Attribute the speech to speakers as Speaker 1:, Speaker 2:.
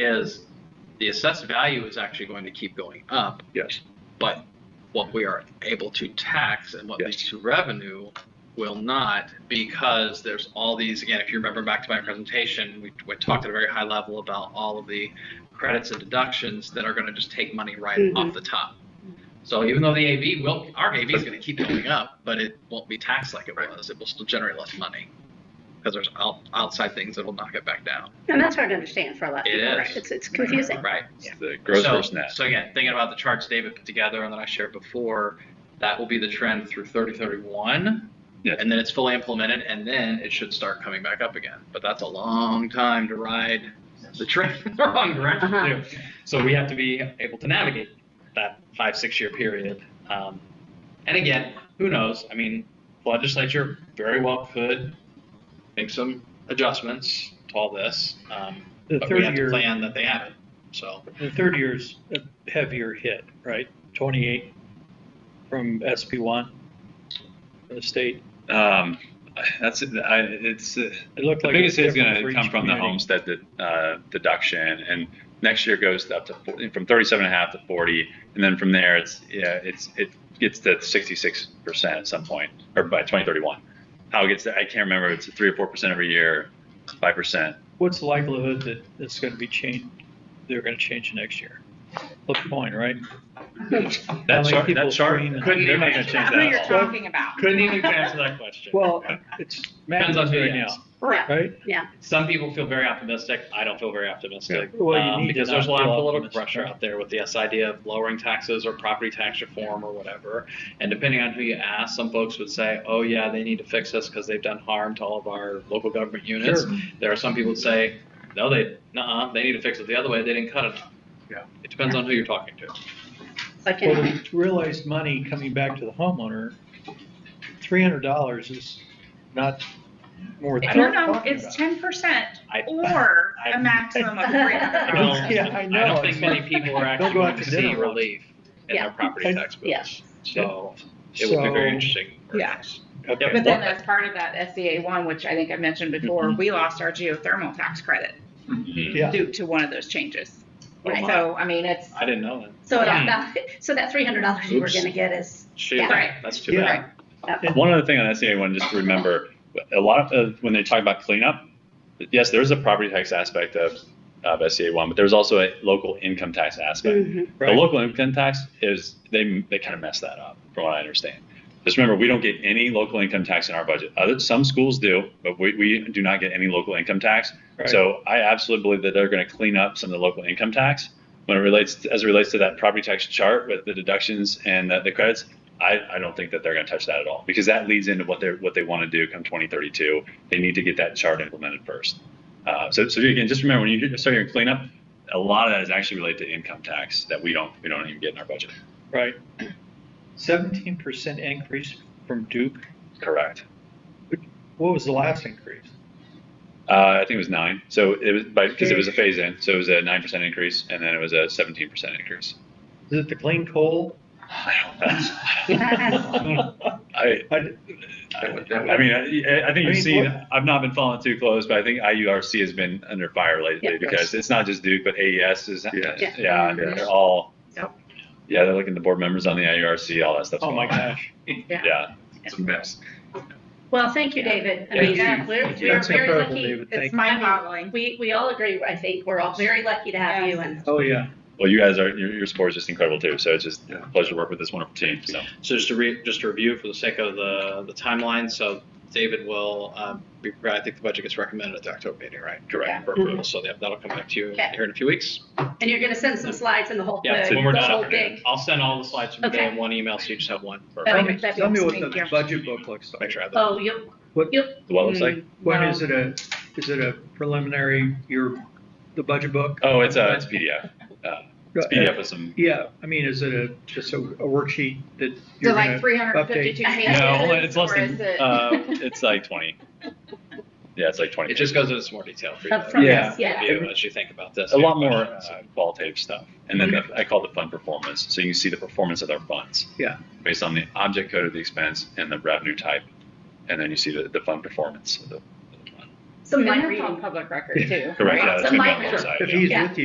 Speaker 1: is the assessed value is actually going to keep going up,
Speaker 2: Yes,
Speaker 1: but what we are able to tax and what
Speaker 2: Yes.
Speaker 1: leads to revenue will not because there's all these again if you remember back to my presentation we, we talked at a very high level about all of the credits and deductions that are going to just take money right
Speaker 3: Mhm.
Speaker 1: off the top so even though the av will our av is going to keep going up but it won't be taxed like it was it will still generate less money because there's out, outside things that will knock it back down
Speaker 3: And that's hard to understand for a lot of
Speaker 1: It
Speaker 3: people, right?
Speaker 1: is.
Speaker 3: It's, it's confusing.
Speaker 1: right
Speaker 2: It's the gross
Speaker 1: so,
Speaker 2: versus net.
Speaker 1: So again, thinking about the charts David put together and that I shared before, that will be the trend through 3031.
Speaker 2: Yes.
Speaker 1: And then it's fully implemented, and then it should start coming back up again. But that's a long time to ride the trend in the wrong direction
Speaker 3: Uh-huh.
Speaker 1: too. So we have to be able to navigate that five six year period. Um, and again, who knows? I mean, the legislature very well could make some adjustments to all this, um,
Speaker 4: The
Speaker 1: but
Speaker 4: third
Speaker 1: we have
Speaker 4: year-
Speaker 1: to plan that they haven't. So.
Speaker 4: The third year's a heavier hit, right? 28 from SP1, the state.
Speaker 2: Um, that's, I, it's, uh,
Speaker 4: It looked
Speaker 2: the
Speaker 4: like.
Speaker 2: biggest
Speaker 4: it's
Speaker 2: is
Speaker 4: different
Speaker 2: going
Speaker 4: for
Speaker 2: to come
Speaker 4: each
Speaker 2: from the
Speaker 4: community.
Speaker 2: homestead de- uh, deduction and next year goes up to, four- from 37 and a half to 40. And then from there, it's, yeah, it's, it gets to 66% at some point or by 2031. How it gets there, I can't remember. It's three or 4% every year, 5%.
Speaker 4: What's the likelihood that it's going to be changed, they're going to change next year? Flip the coin, right?
Speaker 2: That
Speaker 4: many
Speaker 2: chart,
Speaker 4: people
Speaker 2: that chart,
Speaker 4: screen and-
Speaker 2: they're not going to change
Speaker 5: That's who
Speaker 2: that
Speaker 5: you're
Speaker 2: at all.
Speaker 5: talking about.
Speaker 4: Couldn't even
Speaker 1: answer that question.
Speaker 4: Well, it's
Speaker 1: Depends on
Speaker 4: madness
Speaker 1: who you
Speaker 4: right now,
Speaker 1: ask.
Speaker 3: Yeah,
Speaker 4: right?
Speaker 3: yeah.
Speaker 1: Some people feel very optimistic. I don't feel very optimistic.
Speaker 4: Well, you
Speaker 1: um,
Speaker 4: need to
Speaker 1: because there's a
Speaker 4: not
Speaker 1: lot of
Speaker 4: feel
Speaker 1: political
Speaker 4: optimistic,
Speaker 1: pressure
Speaker 4: right?
Speaker 1: out there with this idea of lowering taxes or property tax reform or whatever. And depending on who you ask, some folks would say, "Oh yeah, they need to fix this because they've done harm to all of our local government units." There are some people that say, "No, they, nah, they need to fix it the other way. They didn't cut it."
Speaker 4: Yeah.
Speaker 1: It depends on who you're talking to.
Speaker 3: It's like
Speaker 4: Well,
Speaker 3: anything.
Speaker 4: the realized money coming back to the homeowner, three hundred dollars is not more.
Speaker 5: I don't know, it's ten percent
Speaker 1: I-
Speaker 5: or
Speaker 1: I-
Speaker 5: a maximum of three hundred
Speaker 1: I
Speaker 5: dollars.
Speaker 1: don't-
Speaker 4: Yeah, I know.
Speaker 1: I don't think
Speaker 4: It's
Speaker 1: many
Speaker 4: like-
Speaker 1: people are actually
Speaker 4: Don't go
Speaker 1: going
Speaker 4: out
Speaker 1: to
Speaker 4: to
Speaker 1: see
Speaker 4: dinner.
Speaker 1: relief in
Speaker 3: Yeah.
Speaker 1: their property
Speaker 4: And-
Speaker 1: tax bills.
Speaker 3: yeah.
Speaker 1: So it will be very
Speaker 4: So-
Speaker 1: interesting.
Speaker 5: Yeah.
Speaker 4: Okay.
Speaker 5: But then as part of that SDA one, which I think I mentioned before, we lost our geothermal tax credit
Speaker 2: Mm-hmm.
Speaker 4: Yeah,
Speaker 5: due to one of those changes.
Speaker 1: Oh my.
Speaker 5: So, I mean, it's,
Speaker 1: I didn't know that.
Speaker 3: So
Speaker 1: Hmm.
Speaker 3: that, that, so that three hundred dollars you were
Speaker 1: Oops.
Speaker 3: gonna get is,
Speaker 1: Shoot,
Speaker 3: Yeah.
Speaker 5: Right.
Speaker 1: that's too
Speaker 4: yeah.
Speaker 1: bad.
Speaker 2: One other thing on SCA one, just to remember, a lot of when they talk about cleanup, yes, there is a property tax aspect of, of SCA one, but there's also a local income tax aspect.
Speaker 3: Mhm.
Speaker 2: The
Speaker 4: Right.
Speaker 2: local income tax is they they kind of mess that up, from what I understand. Just remember, we don't get any local income tax in our budget. Other some schools do, but we, we do not get any local income tax.
Speaker 4: Right.
Speaker 2: So I absolutely believe that they're going to clean up some of the local income tax when it relates as it relates to that property tax chart with the deductions and the, the credits. I, I don't think that they're going to touch that at all because that leads into what they are what they want to do come 2032. They need to get that chart implemented first. Uh, so so again, just remember when you start your cleanup, a lot of that is actually related to income tax that we don't we don't even get in our budget.
Speaker 4: right. Seventeen percent increase from Duke.
Speaker 2: Correct.
Speaker 4: What was the last increase?
Speaker 2: Uh, I think it was nine. So it was by because it was a phase in. So it was a nine percent increase, and then it was a seventeen percent increase.
Speaker 4: Is it the clean coal?
Speaker 2: I don't know.
Speaker 4: I-
Speaker 2: I, I mean, I, I think
Speaker 4: I
Speaker 2: you've
Speaker 4: mean,
Speaker 2: seen.
Speaker 4: what-
Speaker 2: I've not been following too close, but I think IURC has been under fire lately
Speaker 3: Yeah.
Speaker 2: because it's not just Duke, but AES is.
Speaker 6: Yes.
Speaker 2: Yeah,
Speaker 3: Yeah.
Speaker 2: they're all.
Speaker 5: Yep.
Speaker 2: Yeah, they're looking at the board members on the IURC, all that stuff.
Speaker 4: Oh, my gosh.
Speaker 2: Yeah, it's a mess.
Speaker 3: well, thank you, David. I mean,
Speaker 4: Thank you.
Speaker 3: we're,
Speaker 4: Thank you.
Speaker 3: we're
Speaker 4: That's
Speaker 3: very
Speaker 4: incredible,
Speaker 3: lucky.
Speaker 4: David.
Speaker 5: it's
Speaker 4: Thank-
Speaker 5: mind boggling.
Speaker 3: We, we all agree, I think, we're all very lucky to have you and
Speaker 4: Oh, yeah.
Speaker 2: Well, you guys are your, your support is just incredible too. So it's just a pleasure to work with this wonderful team. So
Speaker 1: So just to re, just to review for the sake of the, the timeline, so David will, um, be, I think the budget gets recommended at the October meeting, right?
Speaker 2: correct.
Speaker 1: For approval, so that- that'll come back to you
Speaker 3: Okay.
Speaker 1: here in a few weeks.
Speaker 3: And you're gonna send some slides and the whole,
Speaker 1: Yeah,
Speaker 3: the
Speaker 1: when we're
Speaker 3: the
Speaker 1: done,
Speaker 3: whole
Speaker 1: I'll-
Speaker 3: big.
Speaker 1: I'll send all the slides from today
Speaker 3: Okay.
Speaker 1: in one email, so you just have one. for-
Speaker 3: That'd be-
Speaker 1: Make
Speaker 3: that'd be
Speaker 7: Tell me what
Speaker 3: awesome.
Speaker 7: the
Speaker 5: Thank you.
Speaker 7: budget book looks like.
Speaker 1: sure I have that.
Speaker 3: Oh, you,
Speaker 2: The what looks
Speaker 5: Mm.
Speaker 2: like.
Speaker 4: When
Speaker 5: No.
Speaker 4: is it a, is it a preliminary, your, the budget book?
Speaker 2: Oh, it's a it's PDF. Uh, it's PDF with some.
Speaker 4: Yeah, I mean, is it a, just a a worksheet that
Speaker 5: So
Speaker 4: you're
Speaker 5: like
Speaker 4: gonna,
Speaker 5: three hundred and fifty-two
Speaker 3: update.
Speaker 5: pages?
Speaker 2: No, only- it's less
Speaker 5: or
Speaker 2: than.
Speaker 5: is it-
Speaker 2: Uh, it's like twenty. Yeah, it's like twenty.
Speaker 1: It just goes into some more detail for you.
Speaker 3: Oh. up front,
Speaker 4: Yeah.
Speaker 3: yes, yeah.
Speaker 1: Review as you think about this.
Speaker 2: a lot more uh, qualitative stuff, and then the, I call it the fund performance. So you can see the performance of their funds.
Speaker 4: Yeah.
Speaker 2: Based on the object code of the expense and the revenue type, and then you see the, the fund performance. of the-
Speaker 3: Some
Speaker 5: And
Speaker 3: light
Speaker 5: that's
Speaker 3: reading.
Speaker 5: on public record too.
Speaker 2: Correct.
Speaker 5: right?
Speaker 2: Yeah, that's
Speaker 3: So
Speaker 2: gonna be on
Speaker 3: my-
Speaker 2: the website.
Speaker 4: if
Speaker 2: yeah.
Speaker 4: he's
Speaker 3: Yeah.
Speaker 4: with you?